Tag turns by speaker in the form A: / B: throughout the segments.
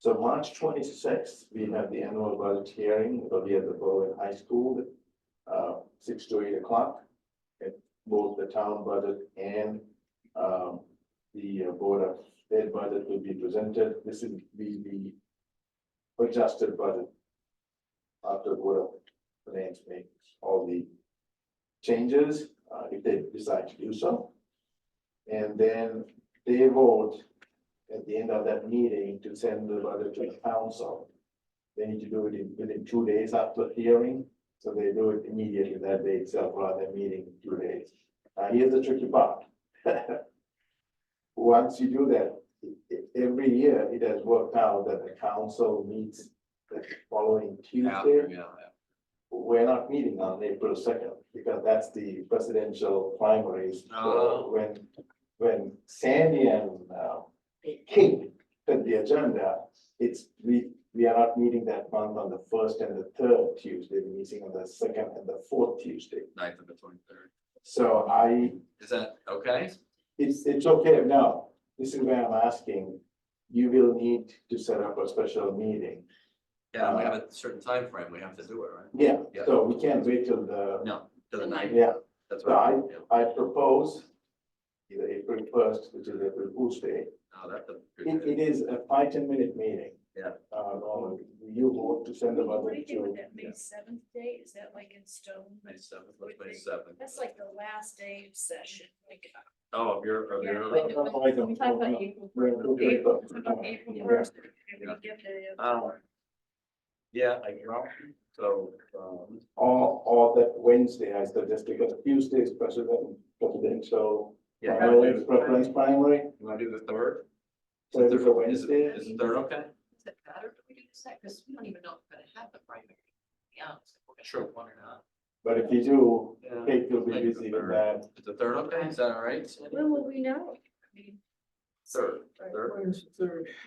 A: So March twenty-sixth, we have the annual budget hearing, it'll be at the Berlin High School, uh, six to eight o'clock. It both the town budget and, um, the uh, Board of State budget will be presented. This is the, the adjusted budget. After Board of Finance makes all the changes, uh, if they decide to do so. And then they vote at the end of that meeting to send the letter to the council. They need to do it in- within two days after the hearing, so they do it immediately that day itself rather than meeting in two days. Uh, here's the tricky part. Once you do that, e- e- every year it has worked out that the council meets the following Tuesday. We're not meeting on April second, because that's the presidential primaries. So
B: Oh.
A: When, when Sandy and uh, King did the agenda, it's, we, we are not meeting that month on the first and the third Tuesday, we're meeting on the second and the fourth Tuesday.
B: ninth of the twenty-third.
A: So I,
B: Is that okay?
A: it's, it's okay now, this is where I'm asking, you will need to set up a special meeting.
B: Yeah, we have a certain time frame. we have to do it, right?
A: Yeah,
B: Yeah.
A: so we can't wait till the,
B: No, to the ninth,
A: yeah,
B: that's
A: No,
B: right. Yeah.
A: I propose either April first, which is April Fool's Day.
B: No, that's a
A: It,
B: good,
A: it is a five, ten minute meeting.
B: Yeah.
A: Uh, Norman, you vote to send the
C: What do
A: budget
C: you do
A: to.
C: with that May seventh day? Is that like in stone?
B: May seventh, what's May seventh?
C: That's like the last day of session, like.
B: Oh, of your, of
A: No,
B: your,
C: Yeah.
A: no, no, I don't.
C: April.
A: We're in April
C: April
A: first. Yeah.
C: first.
B: Yeah.
C: Yeah.
B: Um, yeah, I draw, so, um,
A: Or, or that Wednesday, I suggest, because Tuesday is president, presidential.
B: yeah.
A: primary, Preference primary,
B: You wanna do the third?
A: so it's a
B: Is,
A: Wednesday.
B: is the third okay?
D: Is it better if we do this, because we don't even know if we're gonna have the primary. Yeah.
B: Sure.
D: One or not.
A: But if you do,
B: Yeah.
A: Kate will be
B: Like the
A: busy with
B: third.
A: that.
B: Is the third okay? Is that all right?
C: When will we know? I mean,
B: Third, third.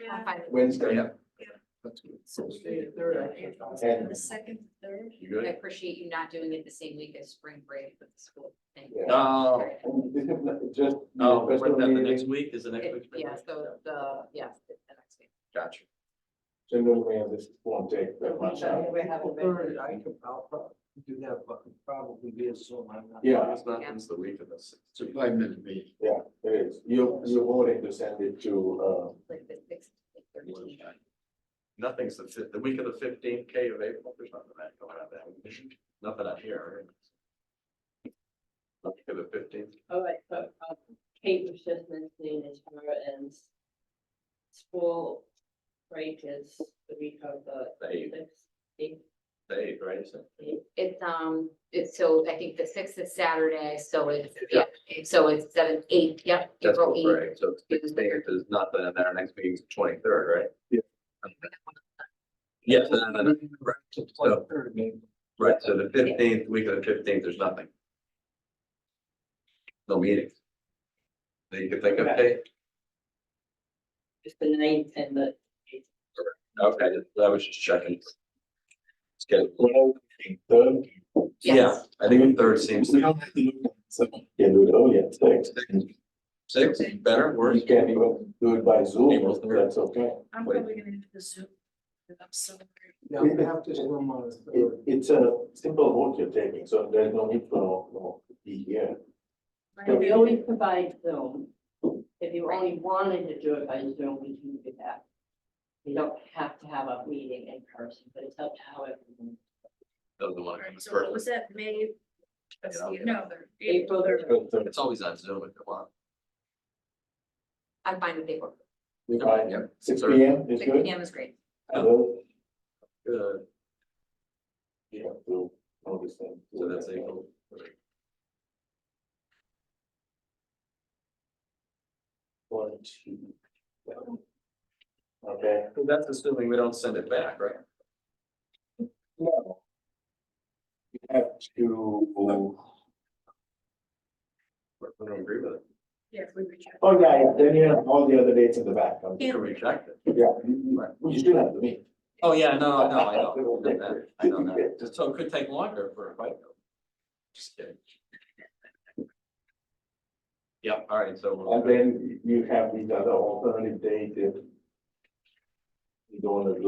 C: yeah.
A: Wednesday.
B: Yeah.
D: So we
E: Stay
D: do
E: third,
D: that.
E: I
A: And-
C: The second, third.
B: You
D: I
B: good?
D: appreciate you not doing it the same week as spring break with the school thing.
A: Yeah.
B: No,
D: Sorry.
A: And this is not just.
B: no, what's that,
A: special
B: Oh, the next
A: meeting,
B: week, is the next
D: It-
B: week?
D: Yeah, so the, yes, the the next week.
B: Gotcha.
A: Generally, and this won't take that much time.
D: We haven't been-
E: Third, I could, I'll probably do that, but probably be a Zoom. I'm not-
A: Yeah.
B: It's not,
D: Yeah.
B: it's the week of the sixth. It's a five minute meeting.
A: It is, you, you're voting to send it to, uh,
D: like the sixth, like thirteenth.
B: Nothing's the fif- the week of the fifteenth K of April, there's nothing that going on that, week. nothing out here. Nothing of the fifteenth,
F: All
G: Oh,
F: right, so
G: uh,
F: um, Kate was just mentioning as far as school break is the week of
G: uh,
F: the
B: the eighth,
F: sixth, eighth,
B: the eighth, right? So-
D: It's, um, it's, so I think the sixth is Saturday, so it's, yeah,
B: Yeah.
D: so it's seven, eight, yep.
B: That's
D: April
B: what
D: eighth.
B: we're, right, so sixteenth is nothing, and then our next meeting's the twenty-third, right?
A: Yeah.
B: Yes, and then, right, so,
E: Third, maybe.
B: right, so the fifteenth, week of the fifteenth, there's nothing. No meetings. That you could think of, Kate?
F: it's the ninth and the
B: Okay, I was just checking. Let's get it.
A: uh,
B: Yeah, I think the third seems to
A: We
B: be
A: don't have to look at so can do it early at six.
B: six, better, worse.
A: You can even do it by Zoom,
B: April
A: if
B: third.
A: that's okay.
C: I'm
B: Wait.
C: probably gonna do the Zoom. I'm so.
E: Yeah, we have to Zoom on the
A: It,
E: third.
A: it's a simple vote you're taking, so there's no need for, no, be here.
F: Yeah.
C: hungry.
F: Okay.
G: We always provide Zoom. If you only wanted to do it by Zoom, we can do that. You don't have to have a meeting in person, but it's up to how everyone.
B: Those are the ones
C: Alright,
B: that's
C: So what
B: first.
C: was that, May?
B: Get out there.
C: No,
G: April
C: April.
G: third.
A: But, uh,
B: It's always on Zoom if you want.
D: I'm fine with April.
A: we might-
B: Yeah.
A: Six
B: Third.
A: P M is
D: Six
A: good.
D: P M is great.
A: Hello?
B: Good.
A: Yeah, so, all this thing.
B: So that's April.
A: One, two. yeah. Okay.
B: That's assuming we don't send it back, right?
A: No. You have to.
B: We don't agree with it.
C: Yeah, if we reject.
A: Oh, yeah, yeah, then you have all the other dates in the back. I'm-
B: You can reject it.
A: Yeah, you- you still have to meet.
B: Oh, yeah, no, no, I know. I know that. I know that. Just So it could take longer for a fight. though. Just kidding. Yep, all right, so. we'll-
A: And then you have these other alternative date if You don't wanna do